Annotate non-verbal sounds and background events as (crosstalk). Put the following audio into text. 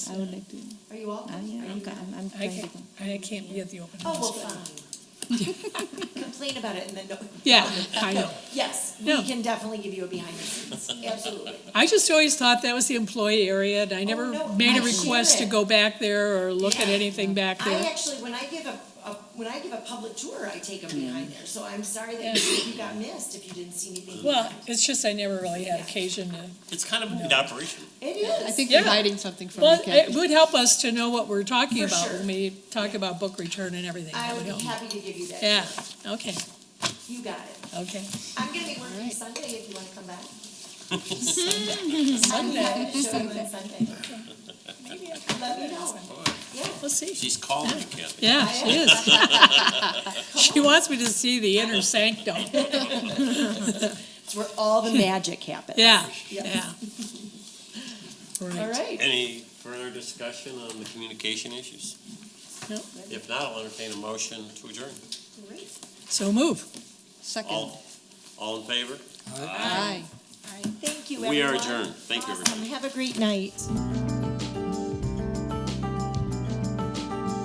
I Jackson. would like to. Are you all? I Oh, am, Are I'm, you- ca- I'm, I'm I trying to can't, go. I can't be at the open Oh, house. well, but- fine. (laughs) Complain about it and then, no. Yeah, I know. Yes, No. we can definitely give you a behind the (laughs) scenes, absolutely. I just always thought that was the employee area, and I never Oh, no, made I a hear request to it. go back there or look at Yeah. anything back I there. actually, when I give a, a, when I give a public tour, I take them behind Mm. there, so I'm sorry that you you got missed if you didn't see anything. Well, it's just I never really had occasion to, It's kind of an operation. It is. I think Yeah. you're hiding something from well, the it kid. would help us to know what we're talking For about sure. when we talk about book return and everything. I That would would be help. happy to give you that. Yeah, okay, You got it. okay. I'm gonna be working right. Sunday if you wanna come back. Sunday, Show you on (laughs) Sunday. Let me know. Yeah. we'll see. She's calling you, Kathy. Yeah, I she (laughs) is. She wants me to see the inner sanctum. (laughs) It's where all the magic happens. Yeah, Yeah. yeah. (laughs) All Right. right. Any further discussion on the communication issues? Nope. If not, I'll entertain a motion to adjourn. Great. So move. Second. All, all in favor? Aye. All right, thank you, everyone. We are adjourned. Thank you, Awesome. Have a great night.